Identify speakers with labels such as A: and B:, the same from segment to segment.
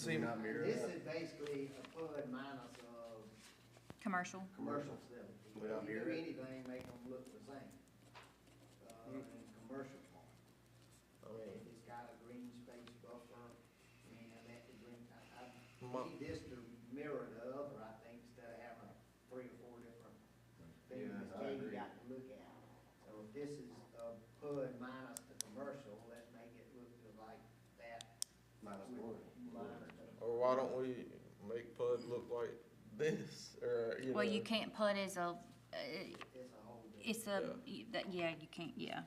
A: Seem not mirror
B: Mm. This
A: up.
B: is basically a fund minus, uh,
C: Commercial.
B: commercial facility. If
A: Without
B: you do
A: mirror.
B: anything, make them look the same, uh, in commercial part.
D: I
A: Oh,
D: mean,
B: It's got a green space buffer, and that could bring, I, I,
D: Mo-
B: need this to mirror the other, I think, instead of having three or four different things
A: Yeah,
B: that
A: I
B: you
A: agree.
B: got to look at. So if this is, uh, PUD minus the commercial, let's make it look like that.
A: Minus
B: with-
A: one.
B: minus the-
D: or why don't we make Pud look like this, or, you know?
C: Well, you can't put as a, uh,
B: It's a whole different.
C: it's a, that, yeah, you can't, yeah.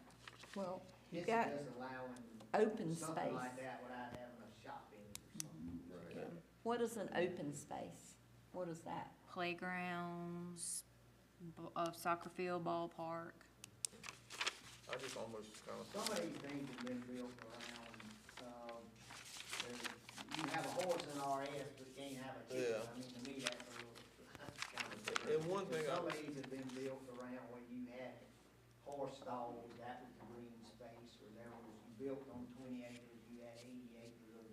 E: Well,
B: This
E: you
B: is
E: got
B: just allowing
E: open
B: something like
E: space.
B: that without having a shopping or something.
A: Right.
E: Yeah. What is an open space? What is that?
C: Playgrounds, b- uh, soccer field, ballpark.
D: I just almost kinda,
B: Some of these things have been built around, um, there's- you have a horse in RS, but you can't have a chicken.
D: Yeah.
B: I mean, to me, that's a little, kind of.
D: And- and one thing I
B: Some of
D: was-
B: these have been built around where you had horse stalls, that was green space, or there was, you built on twenty acres, you had eighty acres of,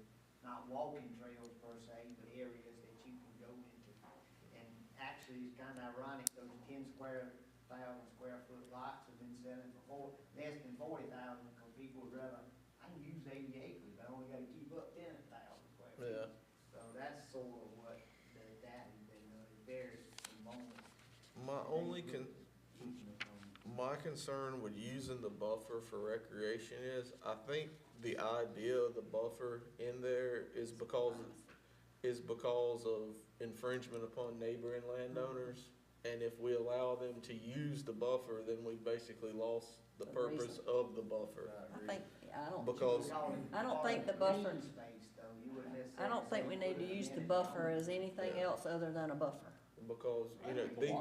B: not walking trails per se, but areas that you can go into. And actually, it's kind of ironic, those ten square, thousand square foot lots have been selling for four, less than forty thousand, because people would rather, I can use eighty acres, but I only gotta keep up ten thousand square feet.
D: yeah,
B: So that's sort of what the, that has been, uh, it varies from moment.
D: my only con,
B: Well,
D: my concern with using the buffer for recreation is, I think the idea of the buffer in there is because, is because of infringement upon neighboring landowners. And if we allow them to use the buffer, then we basically lost the
E: The
D: purpose
E: reason.
D: of the buffer.
A: I
E: I
A: agree.
E: think, I don't.
D: Because-
E: I don't think the buffer-
B: Green space, though, you wouldn't necessarily.
E: I don't think we
B: say
E: need to
B: put it
E: use the
B: in it.
E: buffer as anything
D: Yeah.
E: else other than a buffer.
D: Because, you know, the.
F: Yeah,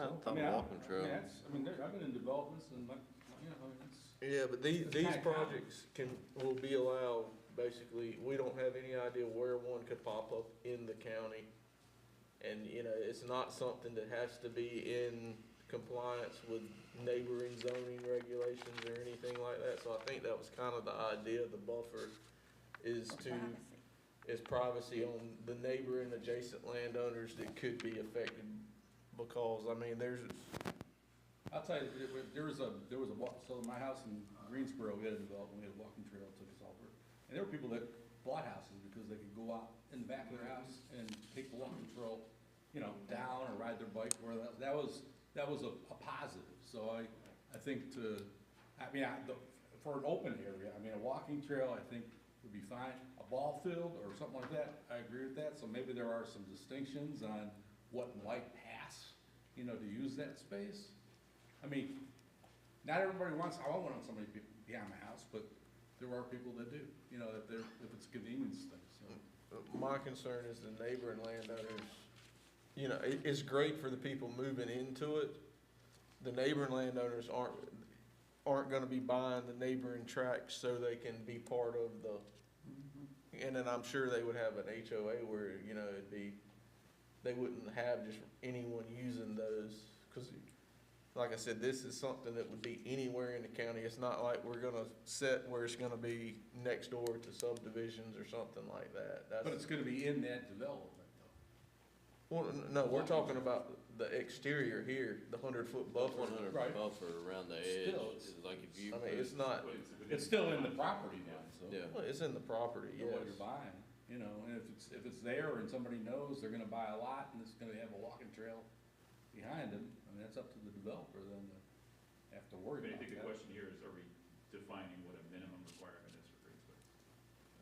F: I
G: I
F: thought
G: mean, I-
F: walking
G: I
F: trail.
G: mean, that's- I mean, there, I've been in developments and like, you know, I mean, it's.
D: Yeah, but these,
G: It's
D: these
G: kinda common.
D: projects can, will be allowed, basically, we don't have any idea where one could pop up in the county. And, you know, it's not something that has to be in compliance with neighboring zoning regulations or anything like that. So I think that was kind of the idea of the buffer, is to, is privacy on the neighboring adjacent landowners that could be affected. Because, I mean, there's,
G: I'll tell you, there was- there was a, there was a walk, so my house in Greensboro, we had a development, we had a walking trail, took us all over. And there were people that bought houses because they could go out in the back of their house and take the walking trail, you know, down or ride their bike, where that, that was, that was a, a positive. So I, I think to, I mean, I, the- for an open area, I mean, a walking trail, I think would be fine. A ball field or something like that, I agree with that, so maybe there are some distinctions on what might pass, you know, to use that space. I mean, not everybody wants, I want one on somebody be- behind my house, but there are people that do, you know, if they're, if it's a convenience thing, so.
D: My concern is the neighboring landowners, you know, it, it's great for the people moving into it. The neighboring landowners aren't, aren't gonna be buying the neighboring tracts so they can be part of the, and then I'm sure they would have an HOA where, you know, it'd be, they wouldn't have just anyone using those, cause like I said, this is something that would be anywhere in the county. It's not like we're gonna set where it's gonna be next door to subdivisions or something like that. That's-
G: But it's gonna be in that development though.
D: well, n- no, we're talking about the exterior here, the hundred foot buffer.
F: One hundred
G: Right.
F: buffer around the edge,
G: Still, it's-
F: is like if
D: I
F: you.
D: mean,
F: put-
D: it's not,
G: It's still in the property now, so.
F: Yeah,
D: well, it's in the property,
G: You know
D: yes.
G: what you're buying, you know, and if it's, if it's there and somebody knows they're gonna buy a lot and it's gonna have a walking trail behind them, I mean, that's up to the developer then to have to worry
H: But I
G: about
H: think the
G: that.
H: question here is, are we defining what a minimum requirement is for green space?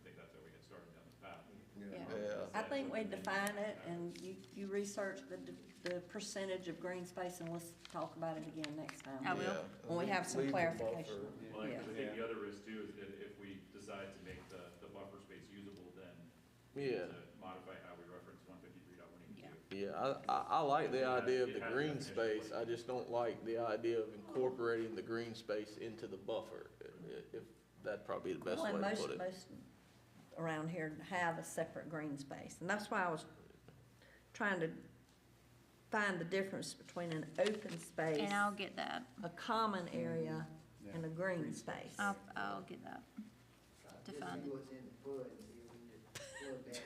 H: I think that's how we get started down the path.
E: Yeah.
D: Yeah.
E: I think we define it and you, you research the, d- the percentage of green space and let's talk about it again next
C: I
E: time.
C: will.
D: Yeah.
E: When we have some
D: Leave the
E: clarification.
D: buffer.
H: Well, I
E: Yeah.
H: think the other is too, is that if we decide to make the, the buffer space usable, then we
D: Yeah,
H: need to modify how we reference one fifty-three dot one eighty-two.
D: yeah, I, I, I like the idea of the green space, I just don't like the idea of incorporating the green space into the buffer. If, that'd probably be the best
E: Well,
D: way
E: and
D: to
E: most,
D: put it.
E: most around here have a separate green space, and that's why I was trying to find the difference between an open space,
C: And I'll get that.
E: a common area,
D: Mm-hmm.
G: Yeah.
E: and a green space.
C: I'll, I'll get that.
B: Uh,
C: Define
B: Just see
C: it.
B: what's in the PUD and see if we can just plug looked at